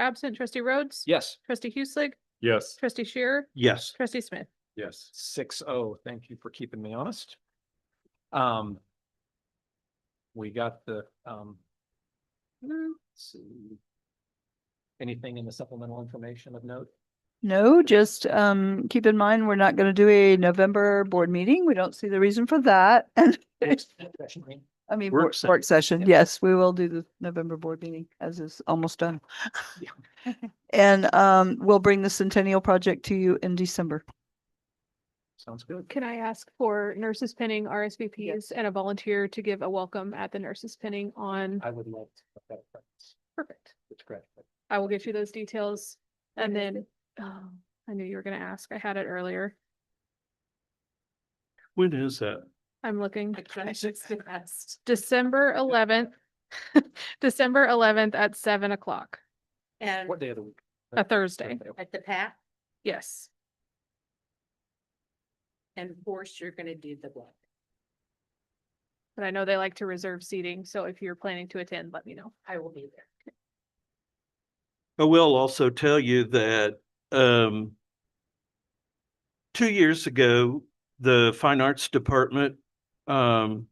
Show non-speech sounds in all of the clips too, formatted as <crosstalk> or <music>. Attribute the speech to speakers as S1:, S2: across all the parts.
S1: absent trustee Rhodes,
S2: Yes.
S1: trustee Hueslick,
S3: Yes.
S1: trustee Shearer,
S3: Yes.
S1: trustee Smith.
S3: Yes.
S2: Six oh, thank you for keeping me honest. Um. We got the, um.
S1: Mm,
S2: let's see. Anything in the supplemental information of note?
S4: No, just um keep in mind, we're not gonna do a November board meeting. We don't see the reason for that. <laughs> And I mean,
S3: Work
S4: work
S3: session.
S4: work session.
S2: Yeah.
S4: Yes, we will do the November board meeting as is almost done.
S2: Yeah.
S4: <laughs> And um we'll bring the Centennial Project to you in December.
S2: Sounds good.
S1: Can I ask for nurses pinning RSVPs and a volunteer to give a welcome at the nurses pinning on?
S2: I would love to. put that in practice.
S1: Perfect.
S2: It's great. but
S1: I will get you those details and
S4: When
S1: then, oh, I knew you were gonna ask. I had it earlier.
S3: When is that?
S1: I'm looking.
S5: Yes.
S1: December eleventh, <laughs> December eleventh at seven o'clock,
S5: And
S2: What day of the week?
S1: a Thursday.
S5: at the pack
S1: Yes.
S5: and of course you're gonna do the blood.
S1: But I know they like to reserve seating, so if you're planning to attend, let me know.
S5: I will be there.
S6: I will also tell you that um two years ago, the Fine Arts Department um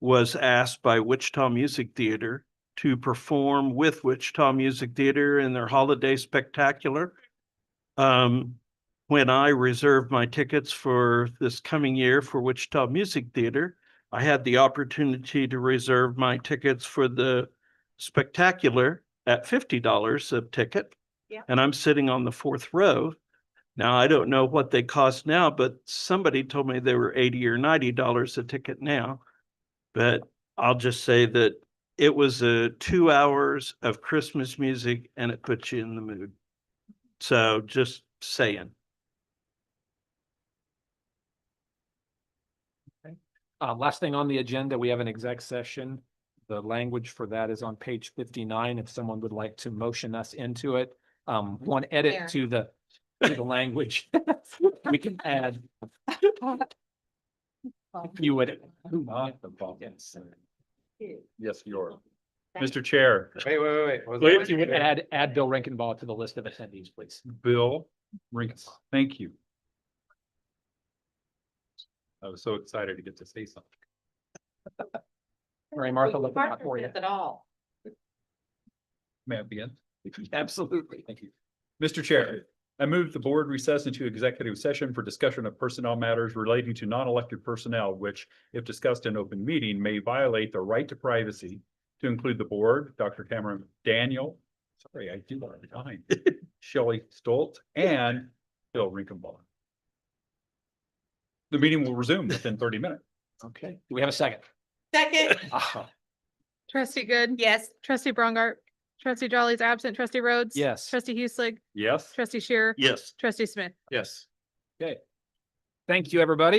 S6: was asked by Wichita Music Theater to perform with Wichita Music Theater in their holiday spectacular. Um, when I reserved my tickets for this coming year for Wichita Music Theater, I had the opportunity to reserve my tickets for the spectacular at fifty dollars a ticket.
S5: Yeah.
S6: And I'm sitting on the fourth row. Now, I don't know what they cost now, but somebody told me they were eighty or ninety dollars a ticket now. But I'll just say that it was a two hours of Christmas music and it puts you in the mood. So just saying.
S2: Uh, last thing on the agenda, we have an exec session. The language for that is on page fifty-nine, if someone would like to motion us into it. Um, one
S5: There.
S2: edit to the, to the language. <laughs> We can add, you would.
S3: Yes, you are.
S5: Thank
S3: Mr. Chair,
S2: Wait, wait,
S3: was
S2: Wait,
S3: that-
S2: if you would add, add Bill Rankinbaugh to the list of attendees, please.
S3: Bill Rinkus, thank you. I was so excited to get to say something.
S2: Mary Martha, looking out for you.
S5: Partnership At all.
S3: May I begin?
S2: Absolutely, thank you.
S3: Mr. Chair, I move the board recess into executive session for discussion of personnel matters relating to non-elected personnel, which, if discussed in open meeting, may violate the right to privacy to include the board, Dr. Cameron Daniel, sorry, I do want to time, Shelley Stoltz, and Bill Rinkenbaugh. The meeting will resume within thirty minutes.
S2: Okay, do we have a second?
S5: Second,
S2: <laughs> Ah,
S1: Trustee Good.
S5: yes.
S1: Trustee Brongart. Trustee Jolly's absent. Trustee Rhodes.
S2: Yes.
S1: Trustee Hueslick,
S3: Yes?
S1: trustee Shearer.
S6: Yes.
S1: Trustee Smith.
S3: Yes.
S2: Thank you, everybody.